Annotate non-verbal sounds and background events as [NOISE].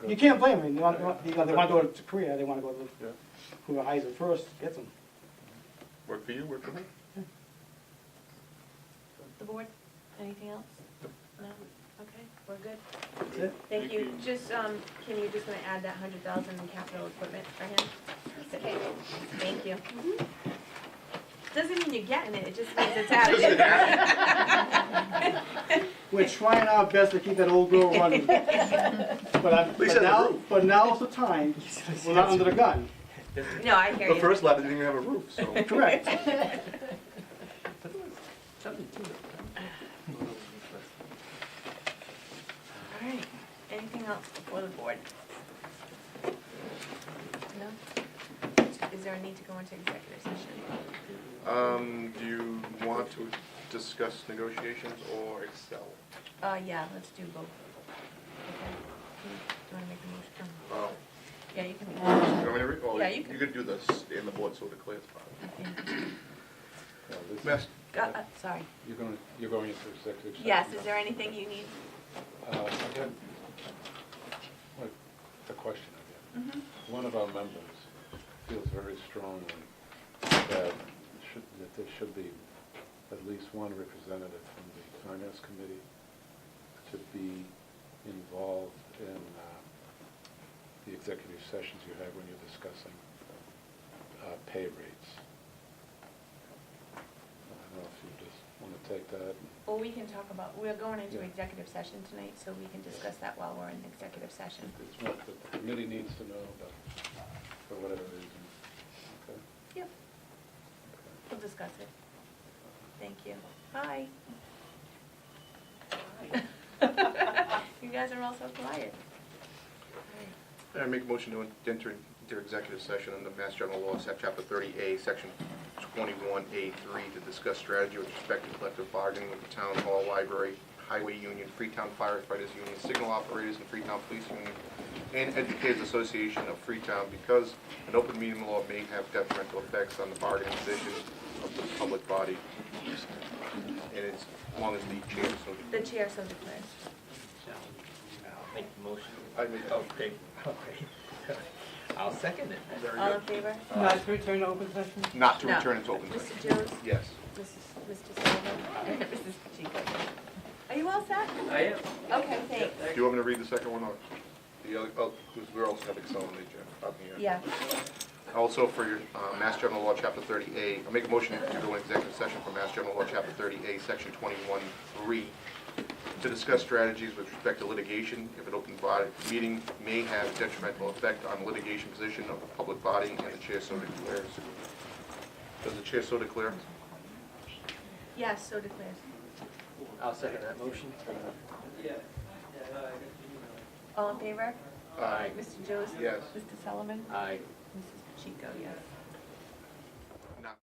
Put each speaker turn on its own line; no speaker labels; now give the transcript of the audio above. You can't blame them, they want, they want- because they want to go to Korea, they want to go
Yeah.
to whoever hires it first gets them.
Work for you, work for me.
The board, anything else? No? Okay, we're good.
That's it.
Thank you. Just, um, can you just gonna add that hundred thousand in capital equipment for him? Okay. Mm-hmm. Thank you. Doesn't mean you're getting it, it just means it's out of there.
We're trying our best to keep that old girl [LAUGHS] running. But I,
least
but
it has a
now,
roof.
but now's the time, we're not under the gun,
No, I hear you.
The first lot didn't even have a roof, so.
[LAUGHS]
correct?
All right, anything else before the board? No? Is there a need to go into executive session?
Um, do you want to discuss negotiations or Excel?
Uh, yeah, let's do both. Okay. Do you wanna make a motion? Um,
Oh,
Yeah, you can make a
you
motion.
want me to read? Oh,
Yeah, you can.
You could do this in the board so it clears. part. Best,
Go- uh, Sorry.
You're going, you're going into executive session?
Yes, is there anything you need?
Uh, I got, what, a question I got. One of our members feels very strongly that should, that there should be at least one representative from the finance committee to be involved in uh, the executive sessions you have when you're discussing uh, pay rates. I don't know if you just want to take that and
Well, we can talk about, we're going into
Yeah.
executive session tonight, so we can discuss that while we're in executive session.
It's what the committee needs to know, but for whatever reason. Okay.
Yep, we'll discuss it. Thank you. Hi. [LAUGHS] You guys are all so quiet.
I make a motion to enter into executive session under Mass General Law, Sec- Chapter 30A, Section 21A3, to discuss strategy with respect to collective bargaining with the town hall, library, highway union, Freetown firefighters union, signal operators and Freetown police union, and educators association of Freetown, because an open meeting law may have detrimental effects on the bargaining position of the public body, and it's- as long as the chair so...
The chair so declares.
I'll make the motion.
I oh, made that.
Okay, okay. [LAUGHS] I'll second it.
There you
All
go.
in favor?
Not to return to open session?
Not to
Uh, No.
return into open session.
Mr. Jones?
Yes.
Mrs. Mr. [LAUGHS] Sullivan? Mrs. Chico? Are you all set?
I am.
Okay, thanks.
Do you want me to read the second one or the other, oh, because we also have Excel on the agenda, up here.
Yeah.
Also for your, uh, Mass General Law, Chapter 30A, I make a motion to go into executive session for Mass General Law, Chapter 30A, Section 21-3, to discuss strategies with respect to litigation, if an open body meeting may have detrimental effect on litigation position of the public body, and the chair so declares. Does the chair so declare?
Yes, so declares.
I'll second that motion.
All in favor?
Aye.
Mr. Jones?
Yes.
Mr. Solomon?
Aye.
Mrs. Pacheco, yes.